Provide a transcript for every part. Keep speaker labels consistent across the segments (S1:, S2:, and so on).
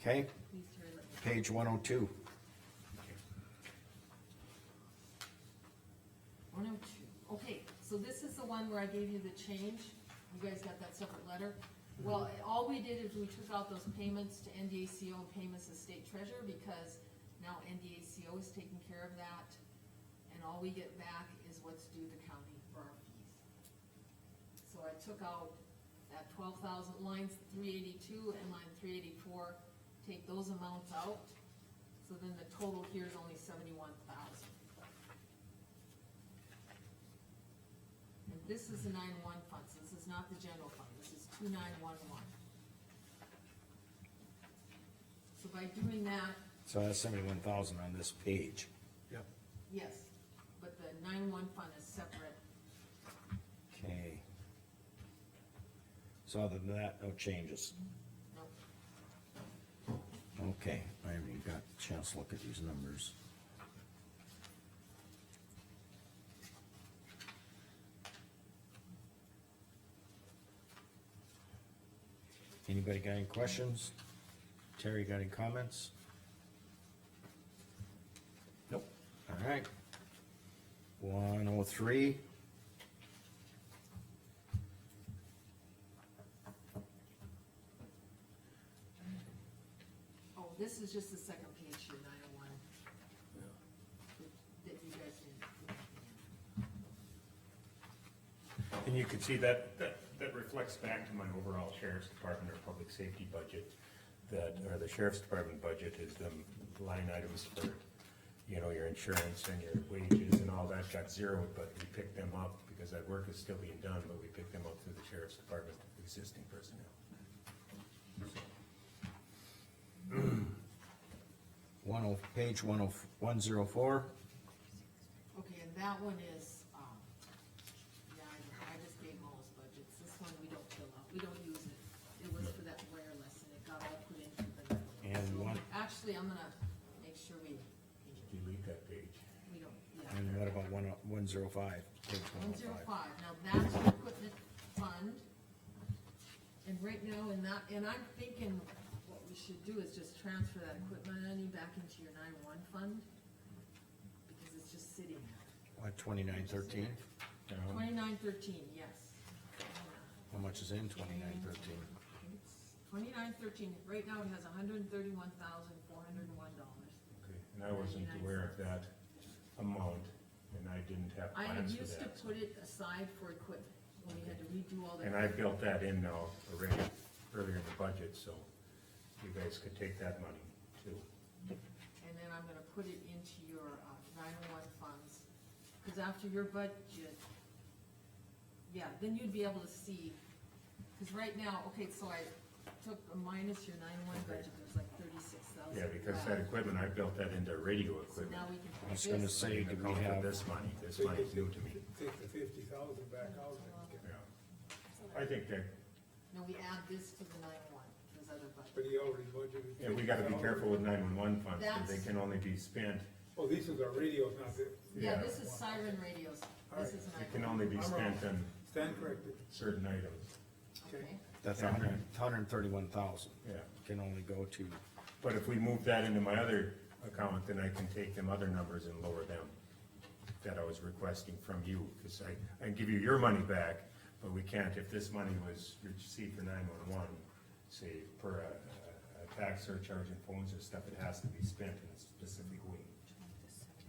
S1: Okay? Page one oh two.
S2: One oh two, okay, so this is the one where I gave you the change, you guys got that separate letter? Well, all we did is we took out those payments to NDACO and payments to state treasurer, because now NDACO is taking care of that, and all we get back is what's due the county for our fees. So I took out that twelve thousand, line three eighty-two and line three eighty-four, take those amounts out, so then the total here is only seventy-one thousand. And this is the nine-one funds, this is not the general fund, this is two-nine-one-one. So by doing that,
S1: So that's seventy-one thousand on this page.
S3: Yep.
S2: yes, but the nine-one fund is separate,
S1: Okay. So other than that, no changes.
S2: no,
S1: Okay, I haven't even got a chance to look at these numbers. Anybody got any questions? Terry, got any comments? Nope. All right. One oh three.
S2: oh, this is just the second page, your nine-one. That you guys didn't.
S4: And you can see that, that, that reflects back to my overall sheriff's department or public safety budget, that, or the sheriff's department budget is the line items for, you know, your insurance and your wages and all that got zeroed, but we picked them up because that work is still being done, but we picked them up through the sheriff's department existing personnel.
S1: One oh, page one oh, one zero four.
S2: Okay, and that one is, um, yeah, I know, I just gave Mo's budgets, this one we don't fill out, we don't use it. It was for that wireless and it got all put into the.
S1: And
S2: So,
S1: one-
S2: Actually, I'm gonna make sure we,
S4: Delete that page.
S2: we don't, yeah.
S1: And what about one, oh- one zero five? Page one
S2: One
S1: oh
S2: zero
S1: five.
S2: five, now that's the equipment fund. And right now, and that, and I'm thinking what we should do is just transfer that equipment money back into your nine one fund. Because it's just sitting there.
S1: What, twenty-nine thirteen?
S2: Twenty-nine thirteen, yes.
S1: How much is in twenty-nine thirteen?
S2: Twenty-nine thirteen, right now it has hundred and thirty-one thousand, four hundred and one dollars.
S4: Okay, and I wasn't aware of that amount, and I didn't have
S2: I had
S4: plans for
S2: used to
S4: that.
S2: put it aside for equipment, when we had to redo all that.
S4: And I built that in now already, earlier in the budget, so you guys could take that money too.
S2: And then I'm gonna put it into your uh, nine-one funds, cause after your budget, yeah, then you'd be able to see, cause right now, okay, so I took a minus your nine-one budget, there's like thirty-six thousand.
S4: Yeah, because that equipment, I built that into radio
S2: So
S4: equipment.
S2: now we can
S1: I
S2: put
S1: was
S2: this.
S1: gonna say, do we
S4: Account for
S1: have,
S4: This money, this money's new to me,
S3: Take the fifty thousand back out and get-
S4: yeah. I think that,
S2: No, we add this to the nine-one, his other budget.
S3: but he already budgeted.
S4: yeah, we gotta be
S3: 50,000.
S4: careful with nine-one-one funds, because they
S2: That's-
S4: can only be spent,
S3: Oh, these are the radios, not the,
S2: Yeah,
S4: Yeah.
S2: this is siren radios, this is
S4: they
S2: an
S4: can only be
S3: I'm wrong.
S4: spent on
S3: stand corrected,
S4: certain items,
S2: okay?
S1: that's a hundred, hundred and thirty-one thousand,
S4: yeah.
S1: can only go to,
S4: But if we move that into my other account, then I can take them other numbers and lower them that I was requesting from you, because I, I give you your money back, but we can't, if this money was received for nine-one-one, say, per a, a tax surcharge and phones and stuff, it has to be spent in a specific way.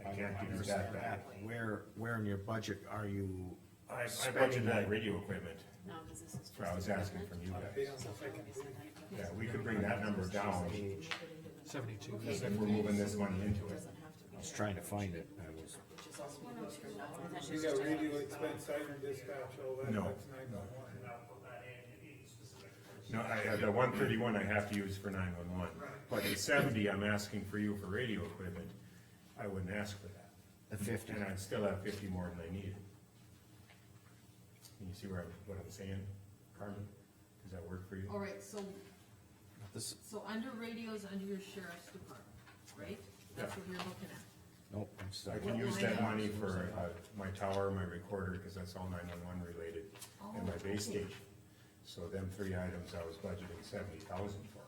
S4: I can't give you that back.
S1: where, where in your budget are you?
S4: I, I
S1: Spending
S4: budgeted
S1: that.
S4: that radio equipment,
S5: No, because this is.
S4: for I was asking from you
S3: they
S4: guys.
S3: on the second page.
S4: Yeah, we could bring that number down,
S1: Page,
S6: Seventy-two.
S4: if we're moving this money into it.
S1: I was trying to find it, I was,
S3: You got radio expense, siren dispatch, all that,
S4: No.
S3: that's nine one one.
S7: and I'll put that in, in specific.
S4: No, I, uh, the one thirty-one I have to use for nine-one-one, but the seventy I'm asking for you for radio equipment, I wouldn't ask for that.
S1: the fifty,
S4: And I'd still have fifty more than I needed. Can you see where I'm, what I'm saying, Carmen? Does that work for you?
S2: All right, so,
S1: this,
S2: so under radios, under your sheriff's department, right? That's what you're looking at.
S1: nope, I'm sorry.
S4: I can use that money for, uh, my tower, my recorder, cause that's all nine-one-one related, and my base
S2: Oh, okay.
S4: station. So them three items I was budgeting seventy thousand for.